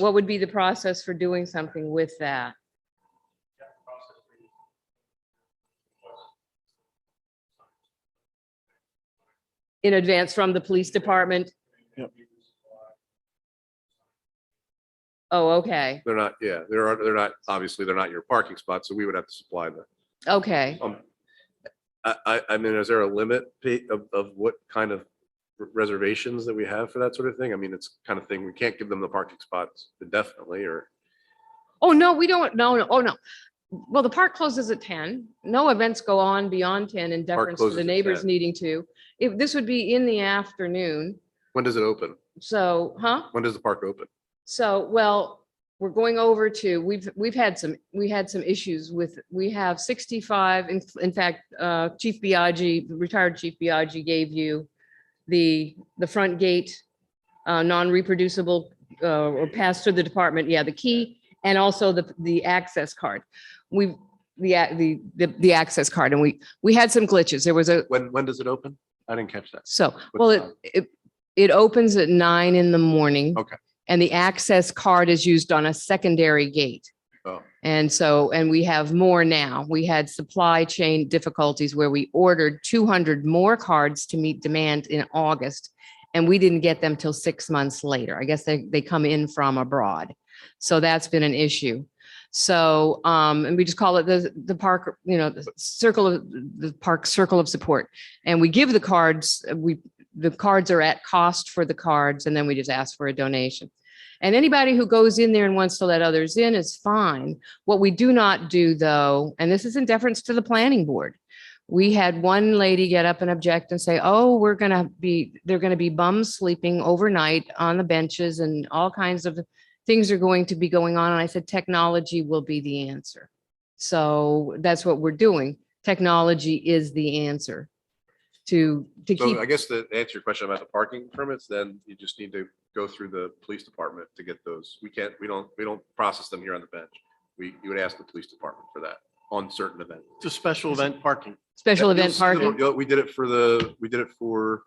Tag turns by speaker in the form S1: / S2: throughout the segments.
S1: what would be the process for doing something with that? In advance from the police department?
S2: Yep.
S1: Oh, okay,
S3: They're not, yeah, there are, they're not, obviously, they're not your parking spot, so we would have to supply them.
S1: okay.
S3: Um, I, I, I mean, is there a limit Pete, of, of what kind of reservations that we have for that sort of thing? I mean, it's kind of thing, we can't give them the parking spots indefinitely, or,
S1: Oh, no, we don't, no, no, oh, no. Well, the park closes at ten. No events go on beyond ten in deference to
S3: closes
S1: the
S3: at
S1: neighbors
S3: 10.
S1: needing to. If, this would be in the afternoon,
S3: when does it open?
S1: so, huh?
S3: When does the park open?
S1: So, well, we're going over to, we've, we've had some, we had some issues with, we have sixty-five, in, in fact, uh, Chief Biagi, retired Chief Biagi gave you the, the front gate, uh, non-reproducible, uh, or pass through the department, yeah, the key, and also the, the access card. We've, the, a- the, the, the access card, and we, we had some glitches. There was a,
S3: When, when does it open? I didn't catch that.
S1: so, well, it,
S3: time?
S1: it, it opens at nine in the morning.
S3: Okay.
S1: And the access card is used on a secondary gate.
S3: Oh.
S1: And so, and we have more now. We had supply chain difficulties where we ordered two hundred more cards to meet demand in August. And we didn't get them till six months later. I guess they, they come in from abroad. So that's been an issue. So, um, and we just call it the, the park, you know, the circle of, the park circle of support. And we give the cards, uh, we, the cards are at cost for the cards, and then we just ask for a donation. And anybody who goes in there and wants to let others in is fine. What we do not do though, and this is in deference to the planning board. We had one lady get up and object and say, oh, we're gonna be, they're gonna be bums sleeping overnight on the benches and all kinds of things are going to be going on. And I said, technology will be the answer. So that's what we're doing. Technology is the answer to, to keep.
S3: So I guess to answer your question about the parking permits, then you just need to go through the police department to get those. We can't, we don't, we don't process them here on the bench. We, you would ask the police department for that on certain events.
S2: It's a special event parking.
S1: Special
S3: Yeah, you'll
S1: event
S3: see the-
S1: parking.
S3: you know, We did it for the, we did it for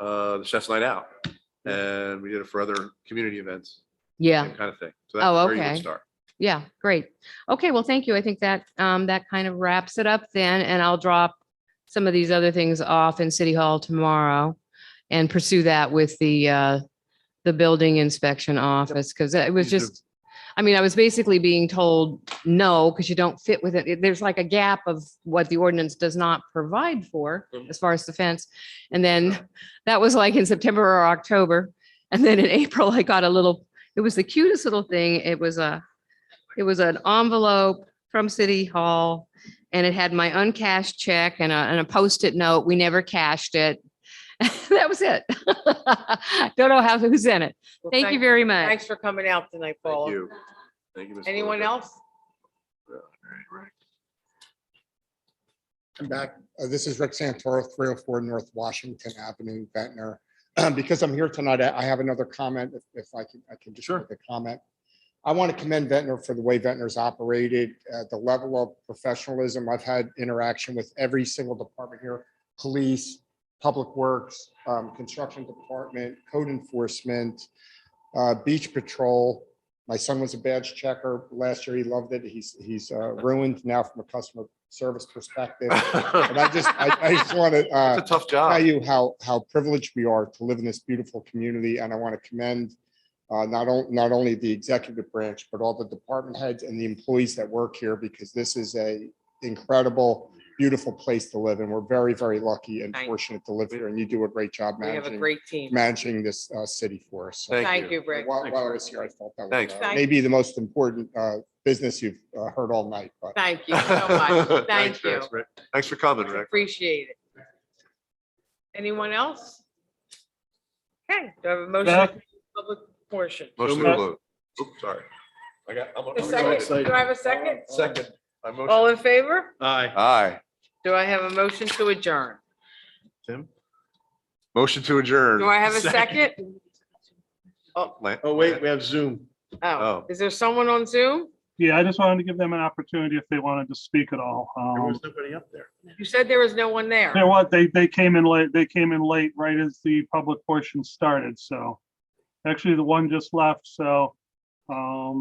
S3: uh the Chef's Night Out. And we did it for other community events,
S1: Yeah,
S3: same kind of thing. So that's
S1: Oh,
S3: where you would
S1: okay.
S3: start.
S1: yeah, great. Okay, well, thank you. I think that, um, that kind of wraps it up then, and I'll drop some of these other things off in City Hall tomorrow and pursue that with the, uh, the building inspection office, because it was
S3: Please do.
S1: just, I mean, I was basically being told, no, because you don't fit with it. It- There's like a gap of what the ordinance does not provide for
S3: Mhm.
S1: as far as the fence. And then that was like in September or October. And then in April, I got a little, it was the cutest little thing. It was a, it was an envelope from City Hall and it had my uncashed check and a, and a post-it note. We never cashed it. That was it. Don't know how, who's in it.
S4: Well,
S1: Thank
S4: thank-
S1: you very much.
S4: Thanks for coming out tonight,
S3: Thank
S4: Paula.
S3: you. Thank you. Ms.
S4: Anyone
S3: Lilligan.
S4: else?
S5: I'm back. Uh, This is Rick Santoro, 304 North Washington Avenue, Ventnor. Because I'm here tonight, I I have another comment, if- if I can, I can just
S2: Sure.
S5: make a comment. I want to commend Ventnor for the way Ventnor's operated, uh, the level of professionalism. I've had interaction with every single department here, police, public works, um, construction department, code enforcement, uh, beach patrol. My son was a badge checker last year. He loved it. He's, he's uh, ruined now from a customer service perspective. And I just, I, I just want to, uh,
S3: It's a tough
S5: tell
S3: job.
S5: you how, how privileged we are to live in this beautiful community, and I want to commend uh, not on, not only the executive branch, but all the department heads and the employees that work here, because this is a incredible, beautiful place to live, and we're very, very lucky and
S4: Thank you.
S5: fortunate to live here, and you do a great job
S4: We have a
S5: managing,
S4: great team.
S5: managing this uh, city for us. So
S4: Thank you, Rick.
S5: While, while I was here, I thought that
S3: Thanks.
S5: was uh, maybe the most important uh, business you've uh, heard all night, but.
S4: Thank you so much.
S3: Thanks,
S4: Thank you.
S3: Rick. Thanks for coming, Rick.
S4: Appreciate it. Anyone else? Okay, do I have a motion?
S2: Yeah.
S4: to close the Public portion.
S3: Motion to
S2: much.
S3: close. Oops, sorry. I got, I'm-
S4: A
S3: I'm. excited.
S4: second, do I have a second?
S3: Oh, Second. I motion-
S4: All in favor?
S2: Aye.
S3: Aye.
S4: Do I have a motion to adjourn?
S2: Tim?
S3: Motion to adjourn.
S4: Do I have a second?
S3: Lan-
S2: Oh, wait, we have Zoom.
S4: Oh,
S3: Oh.
S4: is there someone on Zoom?
S6: Yeah, I just wanted to give them an opportunity if they wanted to speak at all.
S2: There
S6: Um,
S2: was nobody up there.
S4: You said there was no one there.
S6: They what, they, they came in late, they came in late right as the public portion started, so. Actually, the one just left, so Um,